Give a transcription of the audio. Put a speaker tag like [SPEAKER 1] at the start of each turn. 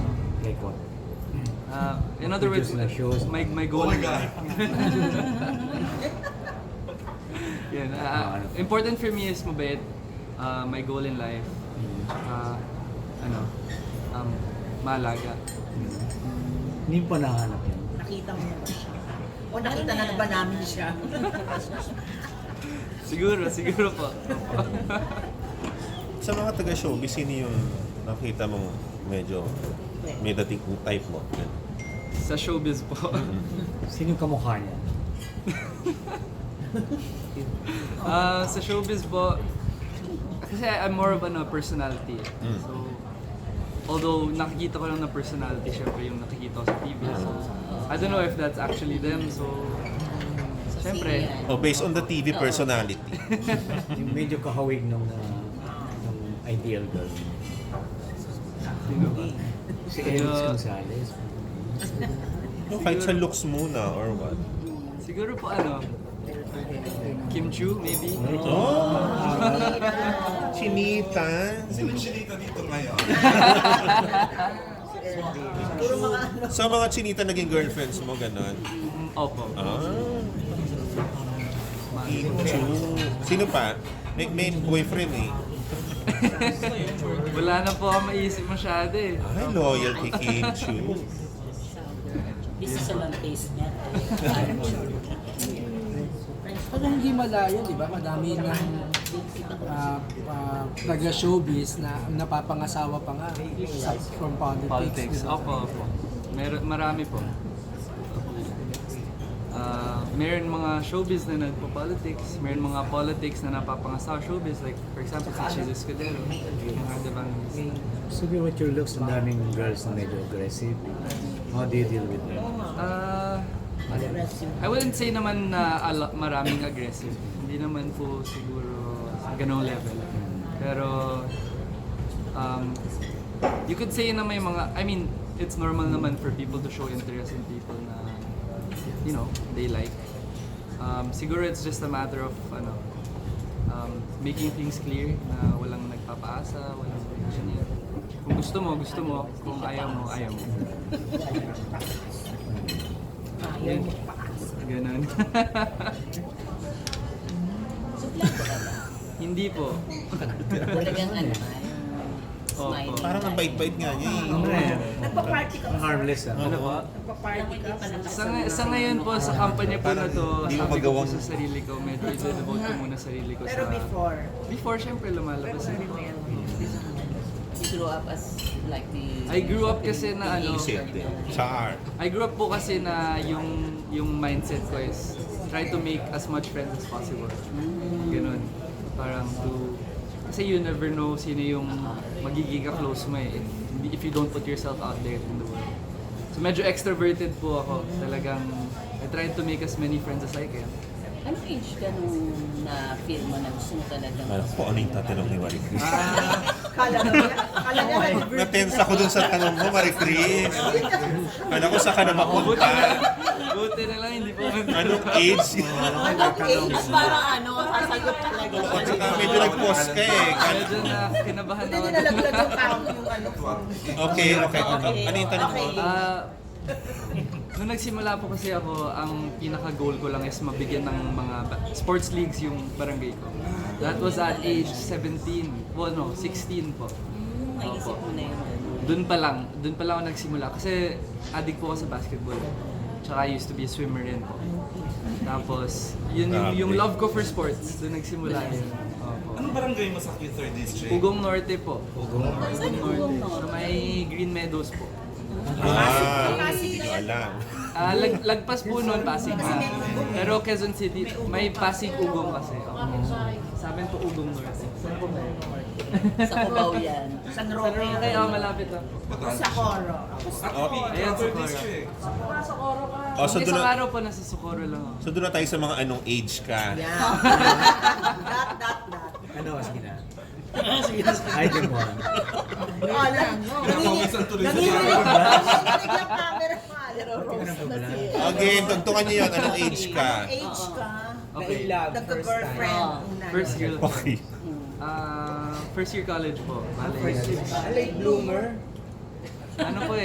[SPEAKER 1] record.
[SPEAKER 2] Uh, in other words,
[SPEAKER 1] Videos na shows.
[SPEAKER 2] my, my goal.
[SPEAKER 3] Oh my God.
[SPEAKER 2] Yan, ah,
[SPEAKER 1] ano.
[SPEAKER 2] ah, important for me is mabait. Ah, my goal in life. ah, ano, um, malaga.
[SPEAKER 1] Hindi pa nahanap yun.
[SPEAKER 4] Nakita mo na ba siya? O
[SPEAKER 5] Ano
[SPEAKER 4] nakita na ba namin siya?
[SPEAKER 2] Siguro, siguro po.
[SPEAKER 6] Sa mga taga-showbiz, sino yung nakita mo medyo may dating type mo?
[SPEAKER 2] Sa showbiz po.
[SPEAKER 1] Sino yung kamukha niya?
[SPEAKER 2] Ah, sa showbiz po, kasi I'm more of ano, personality. eh.
[SPEAKER 6] Mm.
[SPEAKER 2] So, although nakikita ko lang na personality, syempre yung nakikita ko sa TV. So, I don't know if that's actually them. So, syempre,
[SPEAKER 4] Sino yan?
[SPEAKER 6] Oh, based on the TV personality.
[SPEAKER 1] Yung medyo kahawig nung, ah, nung ideal girl.
[SPEAKER 2] sino ba?
[SPEAKER 1] Si Alex
[SPEAKER 2] Kaya-
[SPEAKER 1] Gonzalez.
[SPEAKER 6] Kahit sa looks muna or what?
[SPEAKER 2] Siguro po ano, Kim Chu maybe?
[SPEAKER 6] Oh!
[SPEAKER 4] Ah,
[SPEAKER 6] Chinita!
[SPEAKER 3] Sino chinita dito ngayon?
[SPEAKER 4] Puro mga ano.
[SPEAKER 6] Sa mga chinita naging girlfriends mo, ganon.
[SPEAKER 2] Opo.
[SPEAKER 6] Ah! Into. Sino pa? May, may boyfriend eh.
[SPEAKER 2] Wala na po ako maisip masyado eh.
[SPEAKER 6] Ay, loyal kay Kim Chu.
[SPEAKER 5] This is lang taste niya.
[SPEAKER 7] Pero hindi malayo, di ba? Madami ng ah, ah, taga-showbiz na napapangasawa pa nga eh, sa, from politics.
[SPEAKER 2] Politics.
[SPEAKER 7] di ba?
[SPEAKER 2] Opo, opo. Mer marami po. Ah, meron mga showbiz na nagpo-politics, meron mga politics na napapangasawa showbiz, like for example si Chis Escudero, yung Hard Evangelist.
[SPEAKER 1] Sabi what your looks, ang daming girls na medyo aggressive. How do you deal with them?
[SPEAKER 2] Ah, I wouldn't say naman na ala- maraming aggressive. Hindi naman po siguro sa ganong level. Pero, um, you could say na may mga, I mean, it's normal naman for people to show interest in people na, you know, they like. Um, siguro it's just a matter of, ano, um, making things clear na walang nagpapaasa, walang ganyan. Kung gusto mo, gusto mo. Kung ayaw mo, ayaw mo.
[SPEAKER 4] Ayaw mo pa.
[SPEAKER 2] Ganun. Hindi po.
[SPEAKER 5] Talagang ano,
[SPEAKER 2] Opo.
[SPEAKER 5] smile.
[SPEAKER 6] Parang ang bait-bait nga niya eh.
[SPEAKER 1] Ano yan?
[SPEAKER 4] Nagpa-party ka ba?
[SPEAKER 1] Harmless ah.
[SPEAKER 2] Ano po?
[SPEAKER 4] Nagpa-party ka ba?
[SPEAKER 2] Sa, ngay- sa ngayon po, sa kampanya po na to, sabi
[SPEAKER 6] Parang di mo
[SPEAKER 2] ko po
[SPEAKER 6] magawang-
[SPEAKER 2] sa sarili ko, medyo i-devote ko muna sarili ko
[SPEAKER 4] Pero
[SPEAKER 2] sa...
[SPEAKER 4] before,
[SPEAKER 2] Before, syempre,
[SPEAKER 4] pero
[SPEAKER 2] lumalabas
[SPEAKER 4] sa
[SPEAKER 2] ako.
[SPEAKER 4] rebel.
[SPEAKER 5] You grew up as like the...
[SPEAKER 2] I grew up kasi na ano,
[SPEAKER 6] Isip din. Char.
[SPEAKER 2] I grew up po kasi na yung yung mindset ko is try to make as much friends as possible. Ganun. Parang to kasi you never know sino yung magiging ka-close mo eh if- if you don't put yourself out there in the world. So medyo extroverted po ako. Talagang I try to make as many friends as I can.
[SPEAKER 5] Anong age ka nung na-feel mo na gusto mo talagang...
[SPEAKER 6] Alam ko ano yung tatanong ni Marie Chris.
[SPEAKER 2] Ah,
[SPEAKER 4] Kala niya, kala niya nag-birthday.
[SPEAKER 6] Natense ako dun sa tanong mo, Marie Chris. Alam ko sa ka na
[SPEAKER 2] buti na lang,
[SPEAKER 6] mapunta.
[SPEAKER 2] buti na lang hindi po
[SPEAKER 6] Anong age?
[SPEAKER 4] Anong age? Parang ano, sasagot talaga.
[SPEAKER 6] At saka medyo nag-pause ka eh.
[SPEAKER 2] Medyo na kinabahan
[SPEAKER 4] Hindi
[SPEAKER 2] ako.
[SPEAKER 4] nilalaglag yung tao yung ano. form.
[SPEAKER 6] Okay, okay. Ano yung tanong mo?
[SPEAKER 2] Ah, nung nagsimula po kasi ako, ang pinaka-goal ko lang is mabigyan ng mga ba- sports leagues yung barangay ko. That was at age 17, well no, 16 po.
[SPEAKER 5] Hmm, May isip mo na yun.
[SPEAKER 2] Doon pa lang, doon pa lang ako nagsimula kasi addict po ako sa basketball. Tsaka I used to be a swimmer rin po. Tapos, yun yung, yung love ko for sports, doon nagsimula yun. Opo.
[SPEAKER 3] Anong barangay mo sa 3rd District?
[SPEAKER 2] Ugong Norte po. Ugong
[SPEAKER 5] Saan yung Ugong
[SPEAKER 2] Sa
[SPEAKER 5] Norte?
[SPEAKER 2] may Green Meadows po.
[SPEAKER 6] Ah, hindi ko alam.
[SPEAKER 2] Ah, lag, lagpas po noon Pasig na. Pero Quezon City, may Pasig Ugong kasi. Oo. Sa amin po Ugong North. Saan po kayo?
[SPEAKER 5] Sa Cubao yan.
[SPEAKER 4] San
[SPEAKER 2] Sa
[SPEAKER 4] Roque.
[SPEAKER 2] Roque, oh, malapit lang.
[SPEAKER 4] Sa Coro.
[SPEAKER 6] Oh,
[SPEAKER 2] Ayan, sa
[SPEAKER 3] 3rd
[SPEAKER 2] Coro.
[SPEAKER 3] District.
[SPEAKER 6] oh, so
[SPEAKER 2] Yung
[SPEAKER 6] doon
[SPEAKER 2] isang
[SPEAKER 6] na,
[SPEAKER 2] araw po nasa Socorro lang ako.
[SPEAKER 6] so doon na tayo sa mga anong age ka.
[SPEAKER 4] Yeah. Dot, dot, dot.
[SPEAKER 1] Ano, sige na. I can one.
[SPEAKER 4] Wala.
[SPEAKER 3] Pinakawisan tuloy sa
[SPEAKER 4] Nanginginig
[SPEAKER 3] camera.
[SPEAKER 4] nanginginig yung camera.
[SPEAKER 1] Ano
[SPEAKER 4] Pero rose na siya.
[SPEAKER 6] Again, tugtungan niyo yun. Anong age ka?
[SPEAKER 4] Age ka.
[SPEAKER 2] Okay.
[SPEAKER 4] Nagka-girlfriend.
[SPEAKER 5] time.
[SPEAKER 4] Una.
[SPEAKER 2] First girl.
[SPEAKER 6] Okay.
[SPEAKER 2] Ah, first year college po. Bale.
[SPEAKER 7] First, late bloomer.
[SPEAKER 2] Ano po